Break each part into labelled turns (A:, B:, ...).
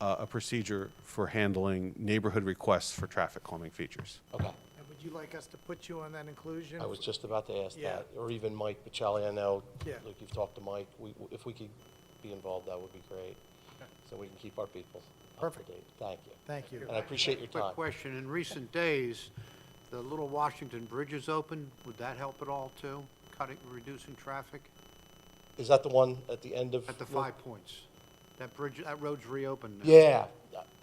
A: uh, a procedure for handling neighborhood requests for traffic calming features.
B: Okay,
C: And would you like us to put you on that inclusion?
B: I was just about to ask
C: Yeah.
B: that, or even Mike Pacelli, I know,
C: Yeah.
B: Luke, you've talked to Mike, we, if we could be involved, that would be great, so we can keep our people up to
C: Perfect.
B: date. Thank you.
C: Thank you.
B: And I appreciate your
D: Quick
B: time.
D: question, in recent days, the Little Washington Bridge is open, would that help at all too? Cutting, reducing traffic
B: Is that the one at the end of?
D: at the five points? That bridge, that road's reopened now.
B: Yeah,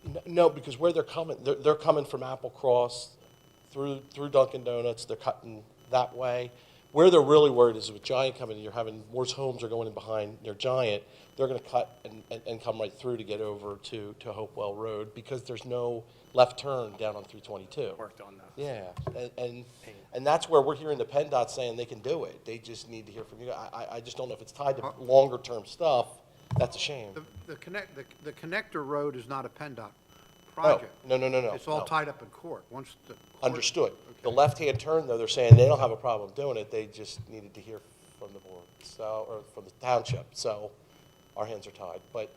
B: N- no, because where they're coming, they're, they're coming from Apple Cross through, through Dunkin' Donuts, they're cutting that way. Where they're really worried is with Giant coming, you're having, worse homes are going in behind their Giant, they're gonna cut and, and, and come right through to get over to, to Hopewell Road, because there's no left turn down on three twenty-two.
E: worked on that.
B: Yeah, and, and, and that's where we're hearing the PennDOT saying they can do it, they just need to hear from you, I, I, I just don't know if it's tied to longer-term stuff, that's a shame.
D: The, the connect, the, the connector road is not a PennDOT
B: No,
D: project.
B: no, no, no, no.
D: It's all
B: no.
D: tied up in court, once the. court-
B: Understood. The
D: Okay.
B: left-hand turn, though, they're saying they don't have a problem doing it, they just needed to hear from the board, so, or from the township, so our hands are tied. But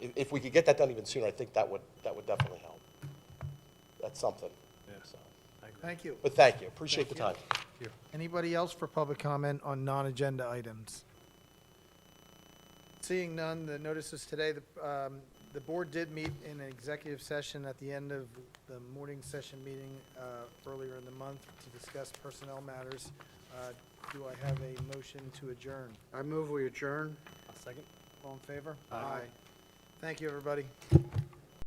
B: if, if we could get that done even sooner, I think that would, that would definitely help. That's something. So,
C: Thank you.
B: But thank you, appreciate the time.
C: Anybody else for public comment on non-agenda items? Seeing none, the notices today, the, um, the board did meet in an executive session at the end of the morning session meeting, uh, earlier in the month to discuss personnel matters. Uh, do I have a motion to adjourn?
D: I move we adjourn.
E: A second?
C: All in favor? Aye. Thank you, everybody.